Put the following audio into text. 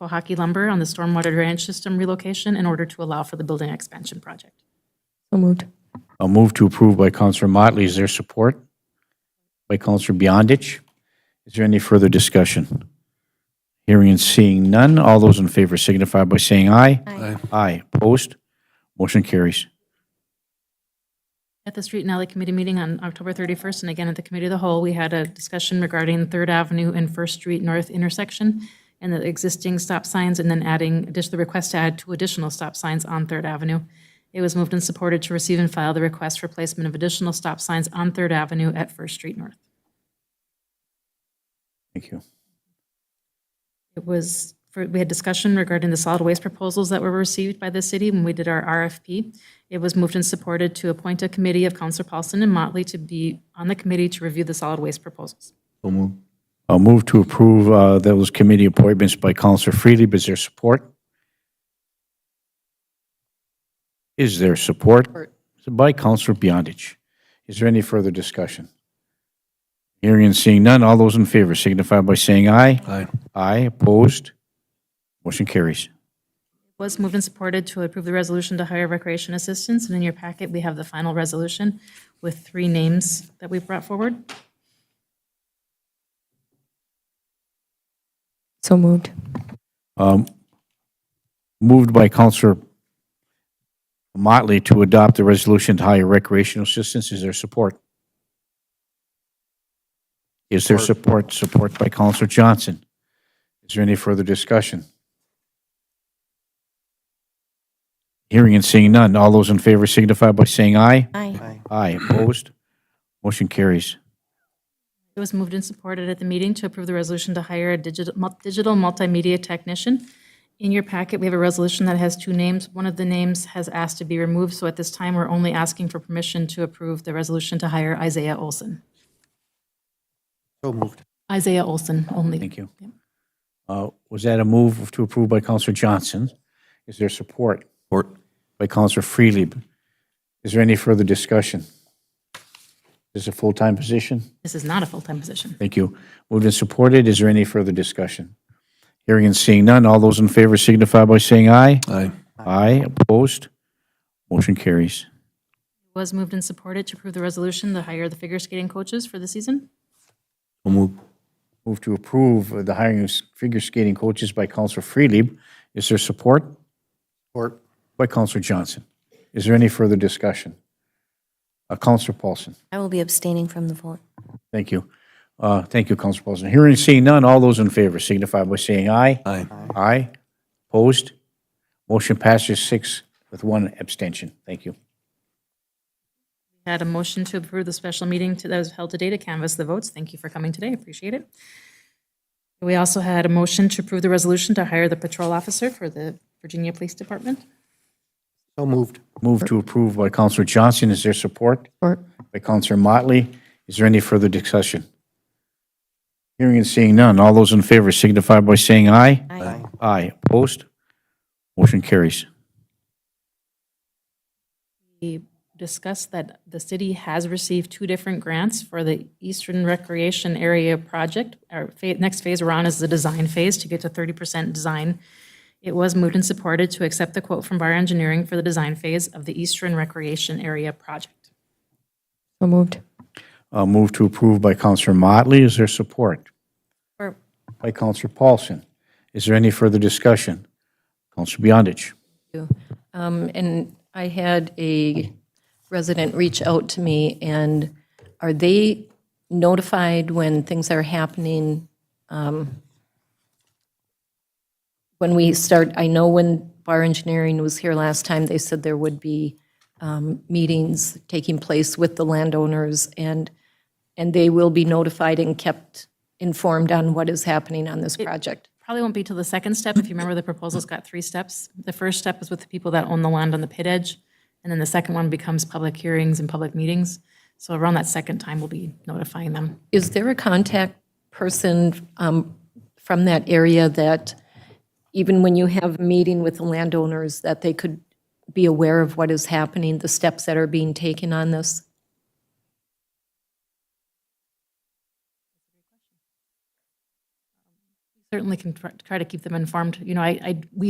Pohaki Lumber on the stormwater drainage system relocation in order to allow for the building expansion project. So moved. A move to approve by Counselor Motley. Is there support? By Counselor Beyondich. Is there any further discussion? Hearing and seeing none. All those in favor signify by saying aye. Aye. Aye. Opposed? Motion carries. At the Street and Alley Committee meeting on October 31st, and again at the Committee of the Whole, we had a discussion regarding Third Avenue and First Street North intersection and the existing stop signs, and then adding, just the request to add two additional stop signs on Third Avenue. It was moved and supported to receive and file the request for placement of additional stop signs on Third Avenue at First Street North. Thank you. It was, for, we had discussion regarding the solid waste proposals that were received by the city when we did our RFP. It was moved and supported to appoint a committee of Counselor Paulson and Motley to be on the committee to review the solid waste proposals. A move to approve uh, those committee appointments by Counselor Freely. Is there support? Is there support? By Counselor Beyondich. Is there any further discussion? Hearing and seeing none. All those in favor signify by saying aye. Aye. Aye. Opposed? Motion carries. Was moved and supported to approve the resolution to hire recreation assistants, and in your packet, we have the final resolution with three names that we brought forward. So moved. Um, Moved by Counselor Motley to adopt the resolution to hire recreational assistance. Is there support? Is there support? Support by Counselor Johnson. Is there any further discussion? Hearing and seeing none. All those in favor signify by saying aye. Aye. Aye. Opposed? Motion carries. It was moved and supported at the meeting to approve the resolution to hire a digital, mul- digital multimedia technician. In your packet, we have a resolution that has two names. One of the names has asked to be removed, so at this time, we're only asking for permission to approve the resolution to hire Isaiah Olson. So moved. Isaiah Olson only. Thank you. Uh, Was that a move to approve by Counselor Johnson? Is there support? Support. by Counselor Freely. Is there any further discussion? This is a full-time position? This is not a full-time position. Thank you. Moved and supported. Is there any further discussion? Hearing and seeing none. All those in favor signify by saying aye. Aye. Aye. Opposed? Motion carries. It was moved and supported to approve the resolution to hire the figure skating coaches for the season. So moved. Move to approve the hiring of figure skating coaches by Counselor Freely. Is there support? Support. By Counselor Johnson. Is there any further discussion? Uh, Counselor Paulson. I will be abstaining from the vote. Thank you. Uh, Thank you, Council President. Hearing and seeing none, all those in favor signify by saying aye. Aye. Aye. Opposed? Motion passes six with one abstention. Thank you. Had a motion to approve the special meeting to- that was held today to canvass the votes. Thank you for coming today, appreciate it. We also had a motion to approve the resolution to hire the patrol officer for the Virginia Police Department. So moved. Move to approve by Counselor Johnson. Is there support? Support. By Counselor Motley. Is there any further discussion? Hearing and seeing none, all those in favor signify by saying aye. Aye. Aye. Opposed? Motion carries. We discussed that the city has received two different grants for the Eastern Recreation Area Project. Our fa- next phase we're on is the design phase to get to 30% design. It was moved and supported to accept the quote from Bar Engineering for the design phase of the Eastern Recreation Area Project. So moved. Uh, Move to approve by Counselor Motley. Is there support? Or- by Counselor Paulson. Is there any further discussion? Counselor Beyondich. Um, And I had a resident reach out to me, and are they notified when things are happening? um, When we start, I know when Bar Engineering was here last time, they said there would be um, meetings taking place with the landowners, and, and they will be notified and kept informed on what is happening on this project. Probably won't be till the second step. If you remember, the proposal's got three steps. The first step is with the people that own the land on the pit edge, and then the second one becomes public hearings and public meetings. So around that second time, we'll be notifying them. Is there a contact person um, from that area that, even when you have a meeting with the landowners, that they could be aware of what is happening, the steps that are being taken on this? certainly can try try to keep them informed. You know, I, I, we